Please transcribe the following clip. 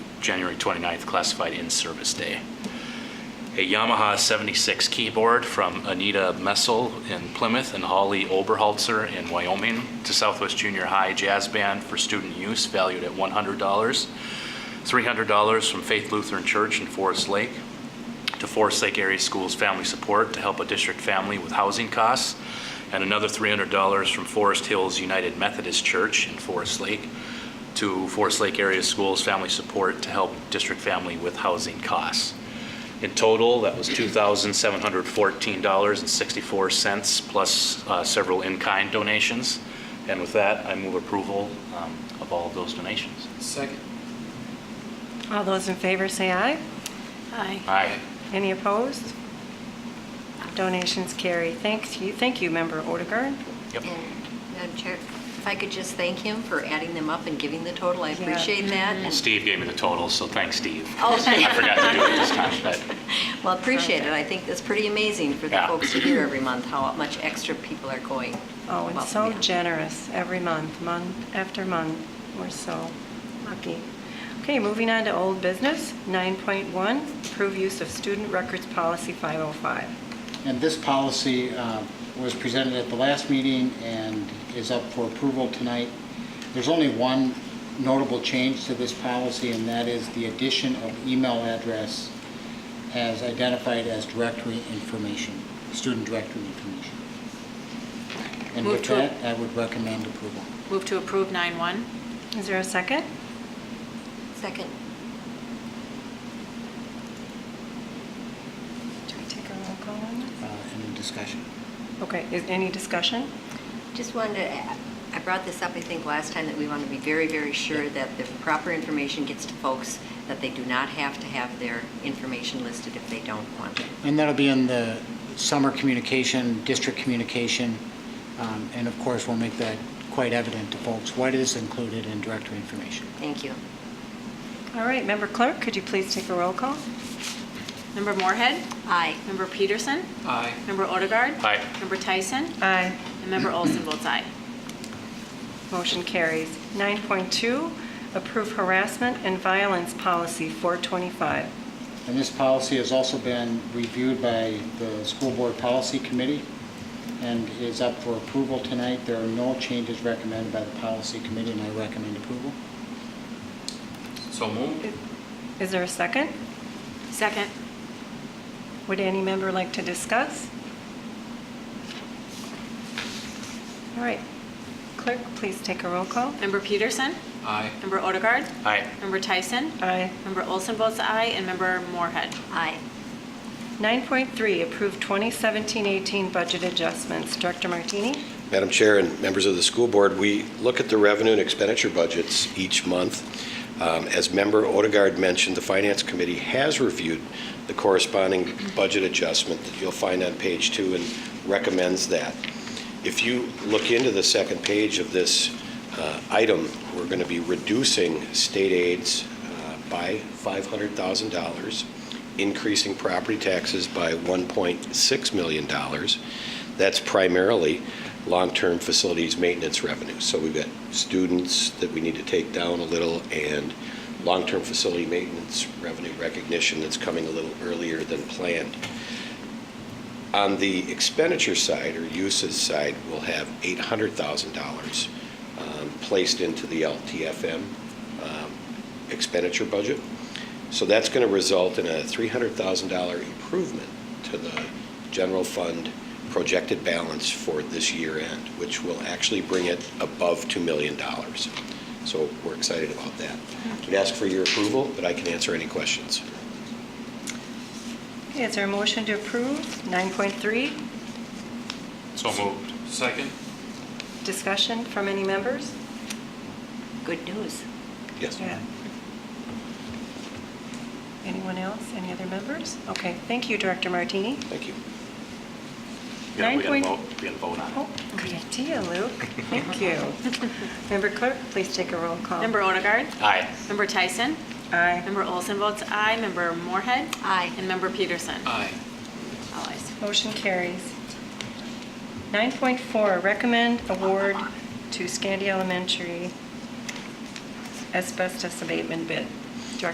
January 29th classified in-service day. A Yamaha 76 keyboard from Anita Messel in Plymouth and Holly Oberholzer in Wyoming to Southwest Junior High Jazz Band for student use valued at $100. $300 from Faith Lutheran Church in Forest Lake to Forest Lake Area Schools Family Support to help a district family with housing costs, and another $300 from Forest Hills United Methodist Church in Forest Lake to Forest Lake Area Schools Family Support to help district family with housing costs. In total, that was $2,714.64, plus uh, several in-kind donations. And with that, I move approval um, of all of those donations. Second. All those in favor say aye. Aye. Aye. Any opposed? Donations carry. Thanks you, thank you, Member Odegaard. Yep. And Madam Chair, if I could just thank him for adding them up and giving the total, I Yeah. Mm-hmm. appreciate that. and- Steve gave me the totals, so thanks, Steve. Oh. I forgot to do it this time, but Well, appreciate it. I think that's pretty amazing for the Yeah. folks to hear every month how much extra people are going. Oh, and above so and beyond. generous every month, month after month. We're so lucky. Okay, moving on to old business, 9.1, approve use of student records policy 505. And this policy uh, was presented at the last meeting and is up for approval tonight. There's only one notable change to this policy, and that is the addition of email address as identified as directory information, student directory information. And Move with to- that, I would recommend approval. Move to approve 9-1. Is there a second? Second. Do we take a roll call on Uh, Any discussion? this? Okay, is any discussion? Just wanted to, add- I brought this up, I think, last time, that we want to be very, very sure that the proper information gets to folks, that they do not have to have their information listed if they don't want it. And that'll be in the summer communication, district communication, um, and of course, we'll make that quite evident to folks, what is included in directory information. Thank you. All right, Member Clerk, could you please take a roll call? Member Moorhead? Aye. Member Peterson? Aye. Member Odegaard? Aye. Member Tyson? Aye. And Member Olson votes aye. Motion carries. 9.2, approve harassment and violence policy 425. And this policy has also been reviewed by the School Board Policy Committee and is up for approval tonight. There are no changes recommended by the Policy Committee, and I recommend approval. So moved. Is there a second? Second. Would any member like to discuss? All right. Clerk, please take a roll call. Member Peterson? Aye. Member Odegaard? Aye. Member Tyson? Aye. Member Olson votes aye, and Member Moorhead. Aye. 9.3, approve 2017-18 budget adjustments. Director Martini? Madam Chair and members of the school board, we look at the revenue and expenditure budgets each month. Um, As Member Odegaard mentioned, the Finance Committee has reviewed the corresponding budget adjustment that you'll find on page two and recommends that. If you look into the second page of this uh, item, we're going to be reducing state aids uh, by $500,000, increasing property taxes by $1.6 million. That's primarily long-term facilities maintenance revenue. So we've got students that we need to take down a little and long-term facility maintenance revenue recognition that's coming a little earlier than planned. On the expenditure side or uses side, we'll have $800,000 um, placed into the LTFM um, expenditure budget. So that's going to result in a $300,000 improvement to the general fund projected balance for this year end, which will actually bring it above $2 million. So we're excited about that. We'd ask for your approval, but I can answer any questions. Okay, Is there a motion to approve? 9.3, So moved. Second. discussion from any members? Good news. Yes? Yeah. Anyone else? Any other members? Okay, thank you, Director Martini. Thank you. Yeah, we Nine gotta point- vote, we gotta vote on Oh, it. good idea, Luke. Thank you. Member Clerk, please take a roll call. Member Odegaard? Aye. Member Tyson? Aye. Member Olson votes aye, Member Moorhead? Aye. And Member Peterson? Aye. All ayes. Motion carries. 9.4, recommend award to Scandia Elementary asbestos abatement bid.